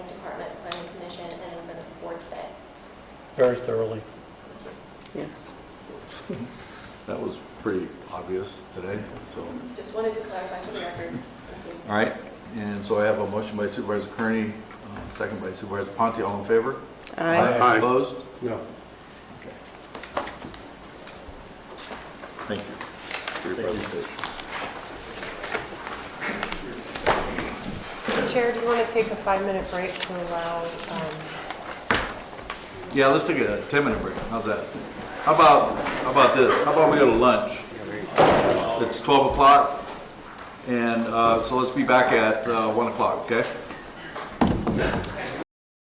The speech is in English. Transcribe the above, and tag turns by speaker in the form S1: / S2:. S1: very thoroughly.
S2: Yes.
S3: That was pretty obvious today, so.
S4: Just wanted to clarify for the record. Thank you.
S3: All right, and so I have a motion by Supervisor Kearney, uh, second by Supervisor Ponte, all in favor?
S2: Aye.
S5: Aye.
S3: Opposed?
S5: No.
S3: Okay. Thank you for your presentation.
S6: Chair, do you want to take a five-minute break to allow, um,
S3: Yeah, let's take a 10-minute break, how's that? How about, how about this, how about we go to lunch? It's 12 o'clock, and uh, so let's be back at uh, 1 o'clock, okay?